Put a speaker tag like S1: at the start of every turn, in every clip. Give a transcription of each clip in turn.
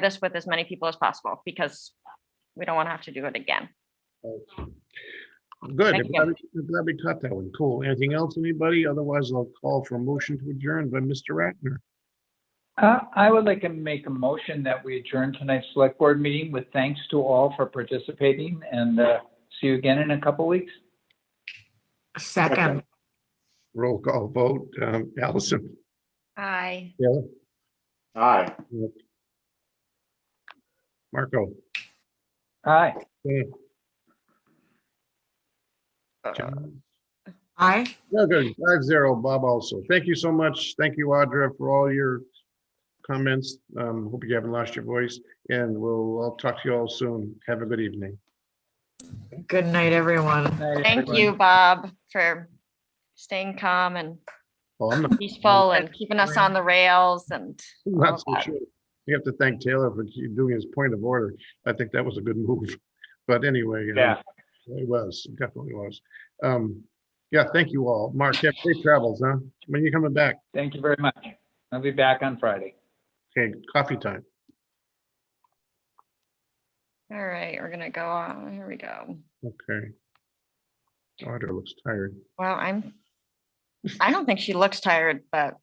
S1: this with as many people as possible because we don't want to have to do it again.
S2: Good.
S1: Thank
S2: I'm
S1: you.
S2: glad we- I'm glad we caught that one. Cool. Anything else, anybody? Otherwise, I'll call for a motion to adjourn by Mr. Ratner.
S3: Uh, I would like to make a motion that we adjourn tonight's select board meeting with thanks to all for participating and, uh, see you again in a couple weeks.
S4: Second,
S2: Roll call vote. Um, Allison,
S1: Aye.
S2: Taylor,
S5: Aye.
S2: Marco,
S3: Aye.
S2: Dan, John.
S4: aye.
S2: No, good. Five zero. Bob also. Thank you so much. Thank you, Audra, for all your comments. Um, hope you haven't lost your voice and we'll, I'll talk to you all soon. Have a good evening.
S4: Good night, everyone.
S3: Night,
S1: Thank
S3: everyone.
S1: you, Bob, for staying calm and
S2: Oh, I'm not-
S1: peaceful and keeping us on the rails and
S2: I'm
S1: all
S2: Not so
S1: that.
S2: sure. You have to thank Taylor for keep- doing his point of order. I think that was a good move. But anyway. um,
S3: Yeah.
S2: It was, it definitely was. Um, yeah, thank you all. Mark, have safe travels, huh? When you coming back?
S3: Thank you very much. I'll be back on Friday.
S2: Okay, coffee time.
S1: All right, we're gonna go on. Here we go.
S2: Okay. Oh, Audra looks tired.
S1: Well, I'm, I don't think she looks tired, but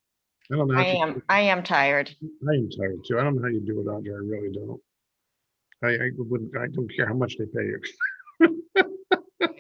S2: I don't know. how
S1: I
S2: she-
S1: am, I am tired.
S2: I am tired too. I don't know how you do it, Audra. I really don't. I, I wouldn't, I don't care how much they pay you.